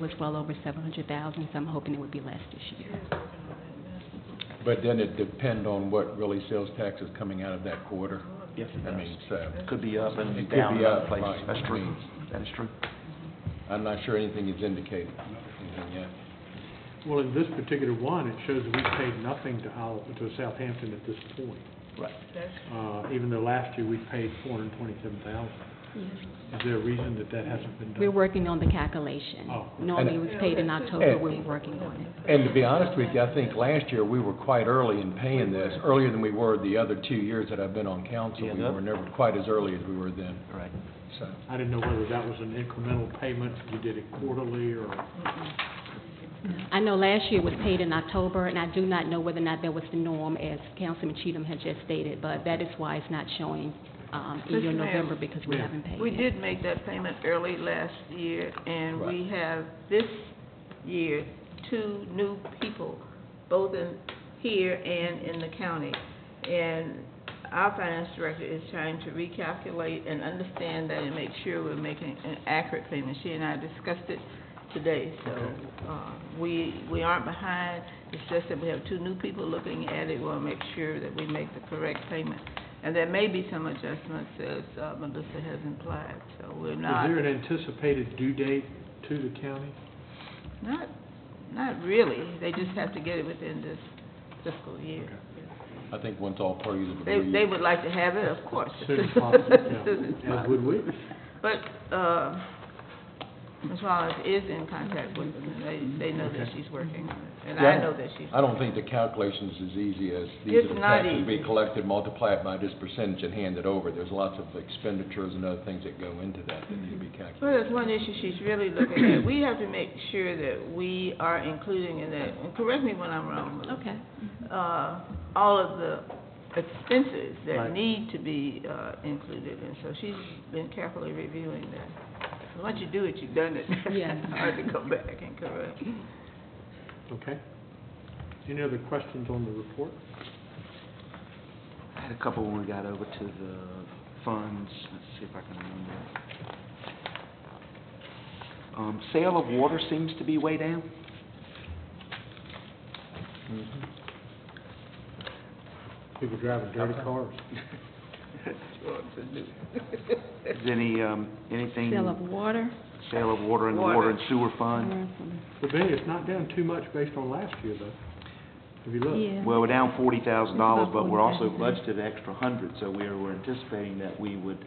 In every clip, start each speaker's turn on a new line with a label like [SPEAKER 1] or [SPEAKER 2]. [SPEAKER 1] was well over seven hundred thousand, so I'm hoping it would be less this year.
[SPEAKER 2] But then it depend on what really sales tax is coming out of that quarter.
[SPEAKER 3] Yes, it
[SPEAKER 2] I mean,
[SPEAKER 3] does.
[SPEAKER 2] so,
[SPEAKER 3] Could be up
[SPEAKER 2] It
[SPEAKER 3] and
[SPEAKER 2] could
[SPEAKER 3] down
[SPEAKER 2] be
[SPEAKER 3] in other
[SPEAKER 2] up,
[SPEAKER 3] places.
[SPEAKER 2] right.
[SPEAKER 3] That's true.
[SPEAKER 2] Mm.
[SPEAKER 3] That is true.
[SPEAKER 2] I'm not sure anything is indicated, anything yet.
[SPEAKER 4] Well, in this particular one, it shows that we paid nothing to Howell, to Southampton at this point.
[SPEAKER 3] Right.
[SPEAKER 4] Uh, even though last year we paid four hundred and twenty-seven thousand. Is there a reason that that hasn't been done?
[SPEAKER 1] We're working on the calculation.
[SPEAKER 4] Oh.
[SPEAKER 1] Normally, it was paid in October,
[SPEAKER 2] And-
[SPEAKER 1] we're working on it.
[SPEAKER 2] And to be honest with you, I think last year we were quite early in paying this, earlier than we were the other two years that I've been on council.
[SPEAKER 3] Yeah,
[SPEAKER 2] We
[SPEAKER 3] that-
[SPEAKER 2] were never quite as early as we were then,
[SPEAKER 3] Right.
[SPEAKER 2] so.
[SPEAKER 4] I didn't know whether that was an incremental payment, you did it quarterly, or,
[SPEAKER 1] I know last year was paid in October, and I do not know whether or not that was the norm, as Councilman Cheatham had just stated, but that is why it's not showing, um, in
[SPEAKER 5] Yes,
[SPEAKER 1] your
[SPEAKER 5] ma'am.
[SPEAKER 1] November, because we
[SPEAKER 4] Yeah.
[SPEAKER 1] haven't paid it.
[SPEAKER 5] We did make that payment early last year, and we have this year, two new people, both in, here and in the county. And our finance director is trying to recalculate and understand that and make sure we're making an accurate payment. She and I discussed it today, so, uh, we, we aren't behind. It's just that we have two new people looking at it, we'll make sure that we make the correct payment. And there may be some adjustments as uh, Melissa has implied, so we're
[SPEAKER 4] is
[SPEAKER 5] not,
[SPEAKER 4] there an anticipated due date to the county?
[SPEAKER 5] not, not really. They just have to get it within this fiscal year.
[SPEAKER 2] I think once all parties
[SPEAKER 5] They,
[SPEAKER 2] agree.
[SPEAKER 5] they would like to have it, of course.
[SPEAKER 4] Soon as possible,
[SPEAKER 5] Soon
[SPEAKER 4] yeah.
[SPEAKER 5] as
[SPEAKER 4] As
[SPEAKER 5] possible.
[SPEAKER 4] would we.
[SPEAKER 5] But, uh, Ms. Wallace is in contact with them, and they, they know that
[SPEAKER 4] Okay.
[SPEAKER 5] she's working on it, and
[SPEAKER 2] Yeah,
[SPEAKER 5] I know that she's.
[SPEAKER 2] I don't think the calculation's as easy as these
[SPEAKER 5] It's
[SPEAKER 2] are the
[SPEAKER 5] not
[SPEAKER 2] taxes we
[SPEAKER 5] easy.
[SPEAKER 2] collected, multiply it by this percentage and hand it over. There's lots of expenditures and other things that go into that that need to be calculated.
[SPEAKER 5] Well, there's one issue she's really looking at. We have to make sure that we are including in that, and correct me when I'm wrong, Melissa.
[SPEAKER 1] Okay.
[SPEAKER 5] uh, all of the expenses that
[SPEAKER 4] Right.
[SPEAKER 5] need to be uh, included, and so she's been carefully reviewing that. So Once you do it, you've done it.
[SPEAKER 1] Yeah.
[SPEAKER 5] It's Hard to go back and correct.
[SPEAKER 4] Okay. Any other questions on the report?
[SPEAKER 3] I had a couple when we got over to the funds. Let's see if I can remember. Um, sale of water seems to be way down.
[SPEAKER 4] People driving dirty cars.
[SPEAKER 3] Is any, um, anything?
[SPEAKER 1] Sale of water.
[SPEAKER 3] Sale of water in the
[SPEAKER 5] Water.
[SPEAKER 3] water and sewer fund?
[SPEAKER 4] But then it's not down too much based on last year, though. Have you looked?
[SPEAKER 1] Yeah.
[SPEAKER 3] Well, we're down forty thousand dollars,
[SPEAKER 1] It's about
[SPEAKER 3] but we're also
[SPEAKER 1] $40,000.
[SPEAKER 3] budgeted an extra hundred, so we're, we're anticipating that we would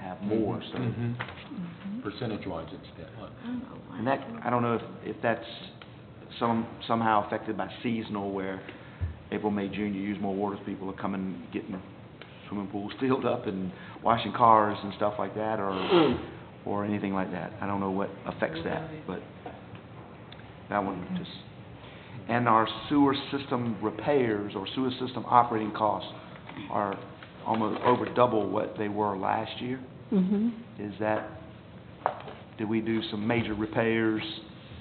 [SPEAKER 3] have more, so.
[SPEAKER 2] Mm-hmm. Percentage-wise, it's that.
[SPEAKER 3] And that, I don't know if, if that's some, somehow affected by seasonal where April, May, June, you use more water, so people are coming, getting swimming pools filled up and washing cars and stuff like that, or, or anything like that. I don't know what affects that, but that one just, and our sewer system repairs or sewer system operating costs are almost over double what they were last year.
[SPEAKER 1] hmm
[SPEAKER 3] Is that, did we do some major repairs?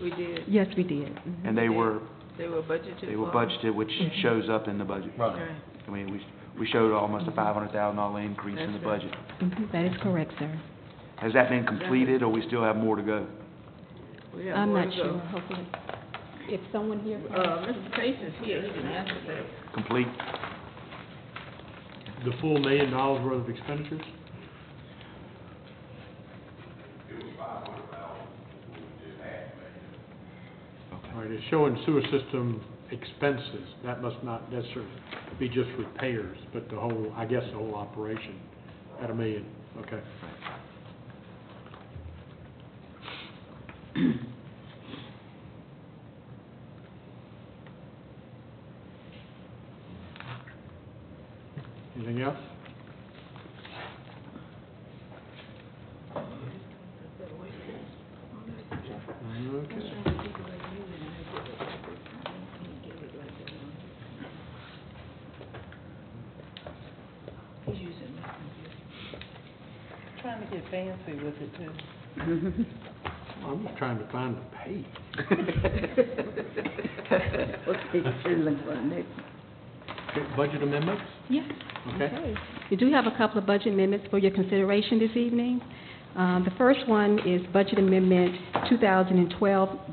[SPEAKER 5] We did,
[SPEAKER 1] Yes, we did. Mhm.
[SPEAKER 5] Mm-hmm.
[SPEAKER 3] And they were,
[SPEAKER 5] they were budgeted
[SPEAKER 3] they were
[SPEAKER 5] for.
[SPEAKER 3] budgeted, which
[SPEAKER 5] Mm-hmm.
[SPEAKER 3] shows up in the budget.
[SPEAKER 2] Right.
[SPEAKER 5] Right.
[SPEAKER 3] I mean, we, we showed almost a five hundred thousand dollar increase in the
[SPEAKER 5] That's right.
[SPEAKER 3] budget.
[SPEAKER 1] Mhm, That is correct, sir.
[SPEAKER 3] Has that been completed, or we still have more to go?
[SPEAKER 5] We have
[SPEAKER 1] I'm
[SPEAKER 5] more
[SPEAKER 1] not
[SPEAKER 5] to go.
[SPEAKER 1] sure, hopefully. If someone here.
[SPEAKER 5] Uh, Mr. Pace is here, he can answer that.
[SPEAKER 3] Complete?
[SPEAKER 4] The full million dollars worth of expenditures? All right, it's showing sewer system expenses. That must not necessarily be just repairs, but the whole, I guess, the whole operation at a million. Okay. Anything else? Okay.
[SPEAKER 5] He's using my
[SPEAKER 6] Trying to get fancy with it too.
[SPEAKER 4] I'm just trying to find the page. Okay, Budget amendments?
[SPEAKER 1] Yes.
[SPEAKER 4] Okay.
[SPEAKER 1] We do have a couple of budget amendments for your consideration this evening. Uh, Um, The first one is Budget Amendment 2012